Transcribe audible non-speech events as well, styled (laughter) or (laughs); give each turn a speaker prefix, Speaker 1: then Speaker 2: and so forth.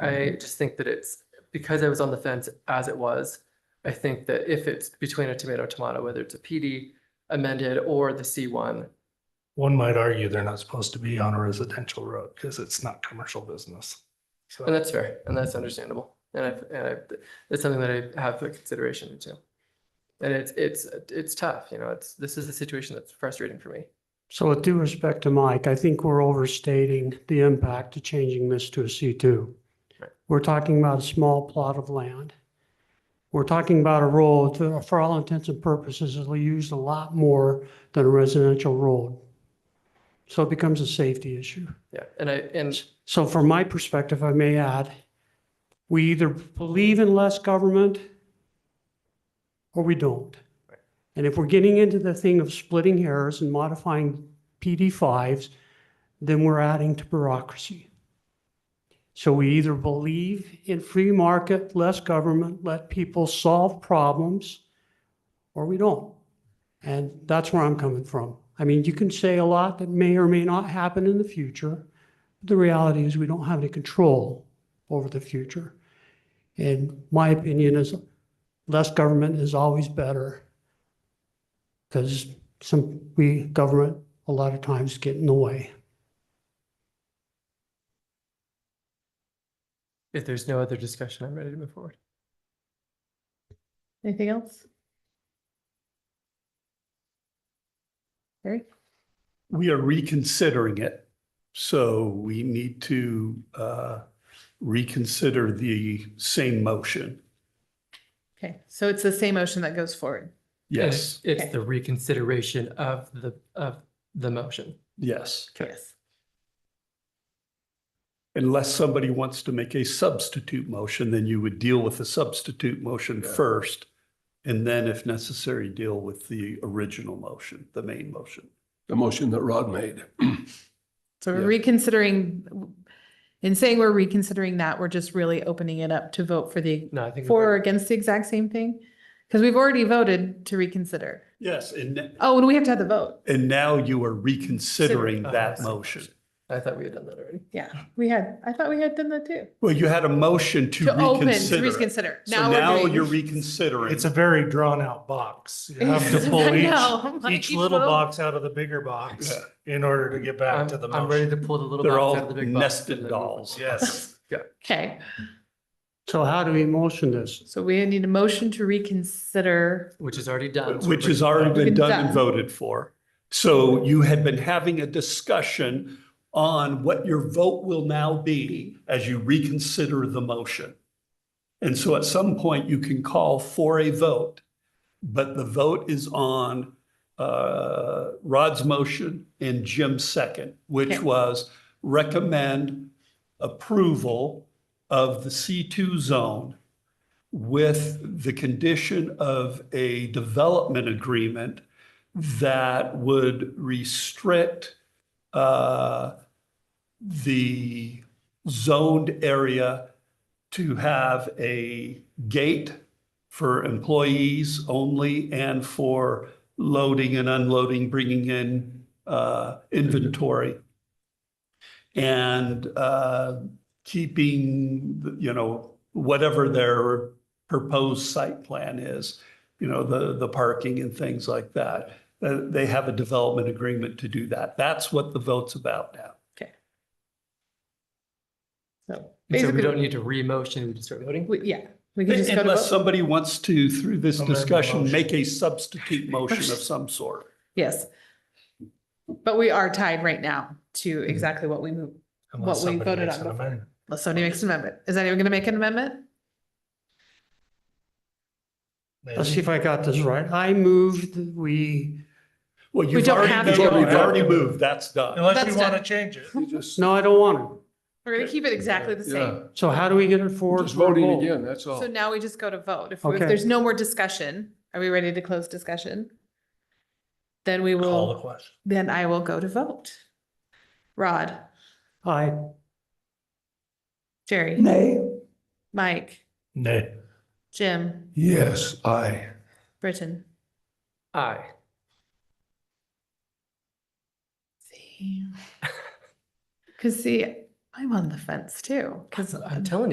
Speaker 1: I just think that it's, because I was on the fence as it was, I think that if it's between a tomato, tomato, whether it's a PD amended or the C one,
Speaker 2: One might argue they're not supposed to be on a residential road because it's not commercial business.
Speaker 1: and
Speaker 2: So
Speaker 1: that's fair, and that's understandable. And I, and I, it's something that I have for consideration too. And it's, it's, it's tough, you know, it's, this is a situation that's frustrating for me.
Speaker 3: So with due respect to Mike, I think we're overstating the impact of changing this to a C2.
Speaker 1: Right.
Speaker 3: We're talking about a small plot of land. We're talking about a road that, for all intents and purposes, is used a lot more than a residential road. So it becomes a safety issue.
Speaker 1: Yeah, and I, and
Speaker 3: So from my perspective, I may add, we either believe in less government or we don't. And if we're getting into the thing of splitting hairs and modifying PD5s, then we're adding to bureaucracy. So we either believe in free market, less government, let people solve problems, or we don't. And that's where I'm coming from. I mean, you can say a lot that may or may not happen in the future. The reality is we don't have any control over the future. And my opinion is less government is always better. Because some, we, government, a lot of times get in the way.
Speaker 1: if there's no other discussion, I'm ready to move forward.
Speaker 4: Anything else? Harry?
Speaker 5: we are reconsidering it. So we need to uh, reconsider the same motion.
Speaker 4: Okay, so it's the same motion that goes forward.
Speaker 1: And it's-
Speaker 5: Yes,
Speaker 1: It's
Speaker 4: Okay.
Speaker 1: the reconsideration of the, of the motion.
Speaker 5: yes.
Speaker 1: Okay.
Speaker 4: Yes.
Speaker 5: Unless somebody wants to make a substitute motion, then you would deal with the substitute motion first. And then if necessary, deal with the original motion, the main motion.
Speaker 6: the motion that Rod made.
Speaker 4: So we're
Speaker 5: Yeah.
Speaker 4: reconsidering, in saying we're reconsidering that, we're just really opening it up to vote for the,
Speaker 1: No, I think. we've
Speaker 4: for or
Speaker 1: already-
Speaker 4: against the exact same thing? Because we've already voted to reconsider.
Speaker 5: Yes, and,
Speaker 4: Oh, and we have to have the vote.
Speaker 5: and now you are reconsidering
Speaker 1: Oh,
Speaker 5: that
Speaker 4: uh,
Speaker 1: I see.
Speaker 5: motion.
Speaker 1: I thought we had done that already.
Speaker 4: Yeah, we had, I thought we had done that too.
Speaker 5: Well, you had a motion to
Speaker 4: To open, to
Speaker 5: reconsider. it.
Speaker 4: reconsider.
Speaker 5: So
Speaker 4: we're
Speaker 5: now
Speaker 4: doing-
Speaker 5: you're reconsidering.
Speaker 2: it's a very drawn out box. (laughs)
Speaker 4: (laughs)
Speaker 2: You have
Speaker 4: I
Speaker 2: to pull each,
Speaker 4: know, like,
Speaker 2: each little
Speaker 4: vote.
Speaker 2: box out of the bigger box uh, in order to get back
Speaker 1: I'm,
Speaker 2: to the
Speaker 1: I'm ready
Speaker 2: motion.
Speaker 1: to pull the little.
Speaker 5: They're
Speaker 1: box out
Speaker 5: all
Speaker 1: of the big box
Speaker 5: nested
Speaker 1: and then move on.
Speaker 5: dolls.
Speaker 2: Yes.
Speaker 4: Okay,
Speaker 3: So how do we motion this?
Speaker 4: so we need a motion to reconsider.
Speaker 1: Which is already done. so
Speaker 5: Which
Speaker 1: we're
Speaker 5: has
Speaker 1: bringing it
Speaker 5: already
Speaker 1: back.
Speaker 5: been done and
Speaker 4: Done.
Speaker 5: voted for. So you had been having a discussion on what your vote will now be as you reconsider the motion. And so at some point, you can call for a vote, but the vote is on uh, Rod's motion and Jim's second, which
Speaker 4: Okay.
Speaker 5: was recommend approval of the C2 zone with the condition of a development agreement that would restrict uh, the zoned area to have a gate for employees only and for loading and unloading, bringing in uh, inventory. And uh, keeping, you know, whatever their proposed site plan is, you know, the, the parking and things like that. Uh, They have a development agreement to do that. That's what the vote's about now.
Speaker 4: So
Speaker 1: And So we
Speaker 4: basically,
Speaker 1: don't need to re-motion, we just start voting.
Speaker 4: we- Yeah, we can just go to
Speaker 5: Unless
Speaker 4: vote.
Speaker 5: somebody wants to, through this
Speaker 2: Amend the
Speaker 5: discussion,
Speaker 2: motion.
Speaker 5: make a substitute motion of some sort.
Speaker 4: Yes. But we are tied right now to exactly what we move.
Speaker 2: Unless
Speaker 4: What we
Speaker 2: somebody
Speaker 4: voted
Speaker 2: makes
Speaker 4: on
Speaker 2: an
Speaker 4: before.
Speaker 2: amendment.
Speaker 4: Unless somebody makes an amendment. Is anyone gonna make an amendment?
Speaker 3: Let's see if I got this right. I moved, that we,
Speaker 5: Well,
Speaker 4: We
Speaker 5: you've
Speaker 4: don't
Speaker 5: already,
Speaker 4: have
Speaker 5: moved-
Speaker 4: to go
Speaker 5: you've
Speaker 4: on.
Speaker 5: already moved. That's done.
Speaker 2: Unless we
Speaker 4: That's
Speaker 2: want to
Speaker 4: done.
Speaker 2: change it.
Speaker 6: You just-
Speaker 3: no, I don't want to.
Speaker 4: We're gonna keep it exactly the
Speaker 6: Yeah,
Speaker 4: same.
Speaker 3: So how do we get it forward?
Speaker 6: Just
Speaker 3: for a
Speaker 6: voting
Speaker 3: vote?
Speaker 6: again, that's all.
Speaker 4: So now we just go to vote. If, if
Speaker 3: Okay.
Speaker 4: there's no more discussion, are we ready to close discussion? Then we
Speaker 2: Call the
Speaker 4: will,
Speaker 2: question.
Speaker 4: then I will go to vote. Rod,
Speaker 3: Aye.
Speaker 4: Jerry,
Speaker 6: Nay.
Speaker 4: Mike,
Speaker 2: Nay.
Speaker 4: Jim,
Speaker 6: Yes, aye.
Speaker 4: Britton.
Speaker 1: Aye.
Speaker 4: See. Cause see, I'm on the fence too, cause
Speaker 1: I'm telling you.